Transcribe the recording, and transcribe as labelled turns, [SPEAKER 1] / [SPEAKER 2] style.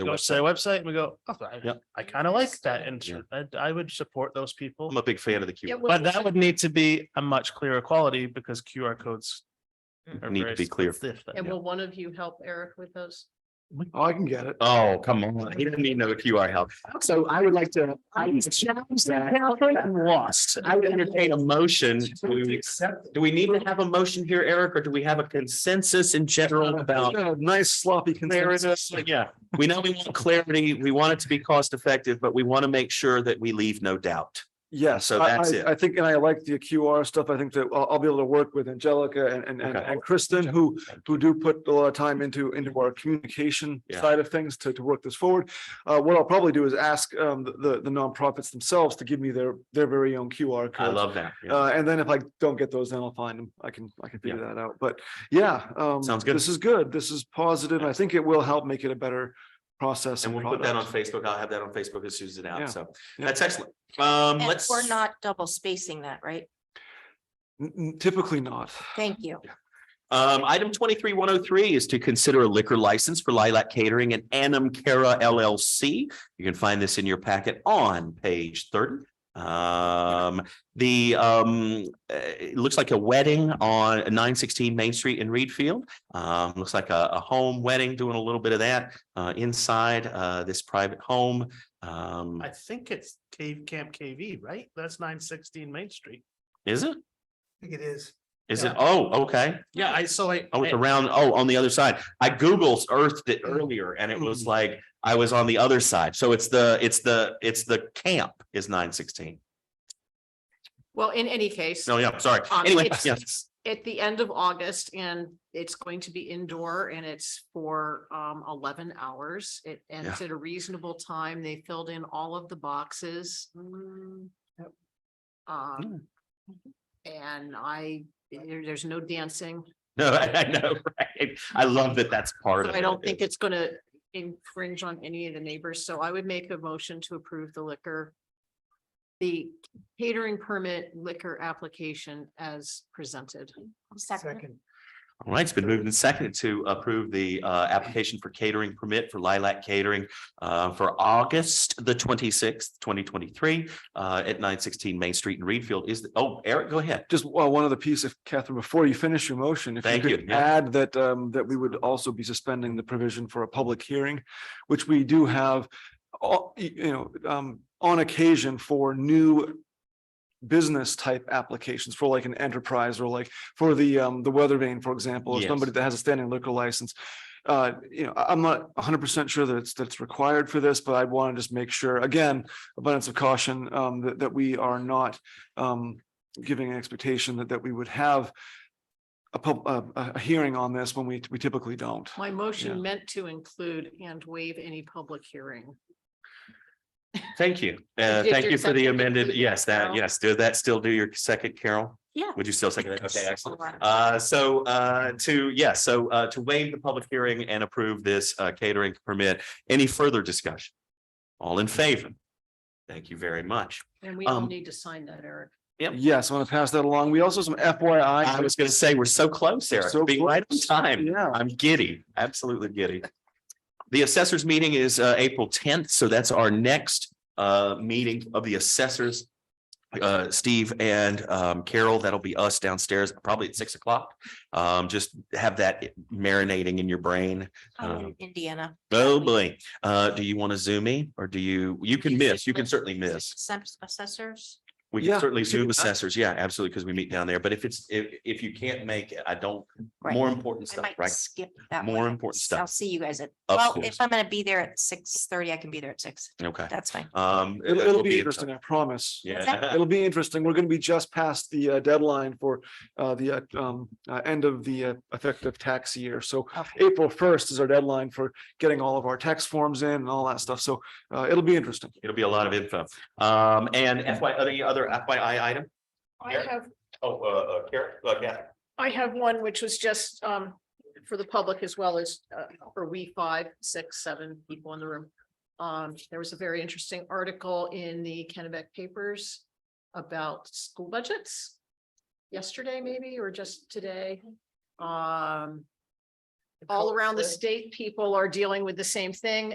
[SPEAKER 1] go to their website and we go, oh, I,
[SPEAKER 2] Yep.
[SPEAKER 1] I kind of like that. And sure, I, I would support those people.
[SPEAKER 2] I'm a big fan of the QR.
[SPEAKER 1] But that would need to be a much clearer quality because QR codes. are
[SPEAKER 2] Mm. Need to
[SPEAKER 1] very
[SPEAKER 2] be clear.
[SPEAKER 1] stiff.
[SPEAKER 3] And will one of you help Eric with those?
[SPEAKER 4] Oh, I can get it.
[SPEAKER 2] Oh, come on. He didn't need no QR help.
[SPEAKER 4] So I would like to, I would challenge that.
[SPEAKER 2] I'm lost. I would entertain a motion. to accept. Do we need to have a motion here, Eric, or do we have a consensus in general about?
[SPEAKER 4] Yeah, Nice sloppy consensus.
[SPEAKER 2] Clarity, yeah, we know we want clarity, we want it to be cost effective, but we want to make sure that we leave no doubt.
[SPEAKER 4] Yes,
[SPEAKER 2] So
[SPEAKER 4] I-
[SPEAKER 2] that's
[SPEAKER 4] I-
[SPEAKER 2] it.
[SPEAKER 4] I think, and I like the QR stuff. I think that I'll, I'll be able to work with Angelica and, and, and-
[SPEAKER 2] Okay.
[SPEAKER 4] and Kristen, who, who do put a lot of time into, into our communication
[SPEAKER 2] Yeah.
[SPEAKER 4] side of things to, to work this forward. Uh, what I'll probably do is ask, um, the, the nonprofits themselves to give me their, their very own QR
[SPEAKER 2] I
[SPEAKER 4] code.
[SPEAKER 2] love that. Yeah.
[SPEAKER 4] Uh, and then if I don't get those, then I'll find them. I can, I can figure that out. But yeah. um,
[SPEAKER 2] Sounds good.
[SPEAKER 4] This is good. This is positive. I think it will help make it a better process.
[SPEAKER 2] And we'll put that on
[SPEAKER 4] product.
[SPEAKER 2] Facebook. I'll have that on Facebook as soon as it's
[SPEAKER 4] Yeah.
[SPEAKER 2] out. So
[SPEAKER 4] Yeah.
[SPEAKER 2] that's excellent. Um,
[SPEAKER 5] And
[SPEAKER 2] let's.
[SPEAKER 5] we're not double spacing that, right?
[SPEAKER 4] N- n- Typically not.
[SPEAKER 5] Thank you.
[SPEAKER 2] Um, item twenty-three one oh three is to consider a liquor license for Lilac Catering and Anam Cara LLC. You can find this in your packet on page thirty. Um, the, um, uh, it looks like a wedding on nine sixteen Main Street in Reedfield. Um, looks like a, a home wedding, doing a little bit of that, uh, inside, uh, this private home. Um,
[SPEAKER 1] I think it's Cave Camp KV, right? That's nine sixteen Main Street.
[SPEAKER 2] is it?
[SPEAKER 6] I think it is.
[SPEAKER 2] Is it? Oh, okay.
[SPEAKER 1] Yeah, I, so I.
[SPEAKER 2] Oh, it's around, oh, on the other side. I Googled earthed it
[SPEAKER 3] Mm-hmm.
[SPEAKER 2] earlier and it was like, I was on the other side. So it's the, it's the, it's the camp is nine sixteen.
[SPEAKER 3] Well, in any case,
[SPEAKER 2] No, yeah, sorry.
[SPEAKER 3] Um,
[SPEAKER 2] Anyway,
[SPEAKER 3] it's-
[SPEAKER 2] yes,
[SPEAKER 3] at the end of August and it's going to be indoor and it's for um eleven hours. It ends at a reasonable time. They filled in all of the boxes. Um, and I, there- there's no dancing.
[SPEAKER 2] no, I I know, right? I love that that's part of it.
[SPEAKER 3] I don't think it's gonna infringe on any of the neighbors, so I would make a motion to approve the liquor. The catering permit liquor application as presented.
[SPEAKER 5] Second.
[SPEAKER 2] All right, it's been moved and seconded to approve the uh application for catering permit for Lilac Catering uh for August the twenty-sixth, twenty twenty-three uh at nine sixteen Main Street in Reedfield is, oh, Eric, go ahead.
[SPEAKER 4] Just uh, one other piece, if Catherine, before you finish your motion, if you
[SPEAKER 2] Thank you,
[SPEAKER 4] could
[SPEAKER 2] yeah.
[SPEAKER 4] add that, um, that we would also be suspending the provision for a public hearing, which we do have, all, y- you know, um, on occasion for new business type applications for like an enterprise or like for the, um, the weather vane, for example, or
[SPEAKER 2] Yes.
[SPEAKER 4] somebody that has a standing liquor license. Uh, you know, I, am not hundred percent sure that it's, that's required for this, but I want to just make sure, again, abundance of caution, um, that, that we are not, um, giving an expectation that, that we would have a pub, a, a a hearing on this when we, we typically don't.
[SPEAKER 3] My
[SPEAKER 4] Yeah.
[SPEAKER 3] motion meant to include and waive any public hearing.
[SPEAKER 2] Thank you. Uh,
[SPEAKER 3] Did
[SPEAKER 2] thank
[SPEAKER 3] your
[SPEAKER 2] you for the
[SPEAKER 3] second
[SPEAKER 2] amended,
[SPEAKER 3] include
[SPEAKER 2] yes, that,
[SPEAKER 3] Carol?
[SPEAKER 2] yes, do that still do your second, Carol?
[SPEAKER 5] Yeah.
[SPEAKER 2] Would you still second that? Okay,
[SPEAKER 5] Yes.
[SPEAKER 2] excellent. Uh, so, uh, to, yes, so, uh, to waive the public hearing and approve this, uh, catering permit. Any further discussion? All in favor? Thank you very much.
[SPEAKER 3] And we all
[SPEAKER 2] Um,
[SPEAKER 3] need to sign that, Eric.
[SPEAKER 2] Yep.
[SPEAKER 4] Yes, I'm gonna pass that along. We also have some FYI.
[SPEAKER 2] I was gonna say, we're so close, Eric,
[SPEAKER 4] Um, So
[SPEAKER 2] being right on
[SPEAKER 4] close.
[SPEAKER 2] time.
[SPEAKER 4] Yeah,
[SPEAKER 2] I'm giddy, absolutely giddy. The assessors meeting is uh April tenth, so that's our next uh meeting of the assessors. Uh, Steve and um Carol, that'll be us downstairs, probably at six o'clock. Um, just have that marinating in your brain.
[SPEAKER 5] I'm
[SPEAKER 2] Um,
[SPEAKER 5] in Indiana.
[SPEAKER 2] Oh, boy. Uh, do you want to zoom in or do you, you can miss, you can certainly miss.
[SPEAKER 5] Assess- Assessors.
[SPEAKER 2] We can
[SPEAKER 4] Yeah,
[SPEAKER 2] certainly zoom
[SPEAKER 4] that.
[SPEAKER 2] assessors. Yeah, absolutely, because we meet down there. But if it's, if if you can't make, it, I don't,
[SPEAKER 5] Right.
[SPEAKER 2] more important
[SPEAKER 5] I
[SPEAKER 2] stuff,
[SPEAKER 5] might
[SPEAKER 2] right?
[SPEAKER 5] skip that.
[SPEAKER 2] More
[SPEAKER 5] one.
[SPEAKER 2] important
[SPEAKER 5] I'll
[SPEAKER 2] stuff.
[SPEAKER 5] see you guys at,
[SPEAKER 2] Of
[SPEAKER 5] well,
[SPEAKER 2] course.
[SPEAKER 5] if I'm gonna be there at six thirty, I can be there at six.
[SPEAKER 2] Okay.
[SPEAKER 5] That's fine.
[SPEAKER 2] Um.
[SPEAKER 4] it'll,
[SPEAKER 2] we'll
[SPEAKER 4] it'll
[SPEAKER 2] in
[SPEAKER 4] be
[SPEAKER 2] touch.
[SPEAKER 4] interesting, I promise.
[SPEAKER 2] Yeah.
[SPEAKER 4] It'll be interesting. We're gonna be just past the uh, deadline for uh, the uh, um, uh, end of the uh, effective tax year. So
[SPEAKER 5] Okay.
[SPEAKER 4] April first is our deadline for getting all of our tax forms in and all that stuff. So uh, it'll be interesting.
[SPEAKER 2] It'll be a lot of info. Um, and FY, any other FYI item?
[SPEAKER 3] I
[SPEAKER 2] Eric?
[SPEAKER 3] have,
[SPEAKER 2] Oh, uh, uh, Karen, uh, Catherine.
[SPEAKER 3] I have one which was just um for the public as well as uh for we five, six, seven people in the room. Um, there was a very interesting article in the Kennebec papers about school budgets. Yesterday, maybe, or just today.
[SPEAKER 1] uh,
[SPEAKER 3] Um. All around the state, people are dealing with the same thing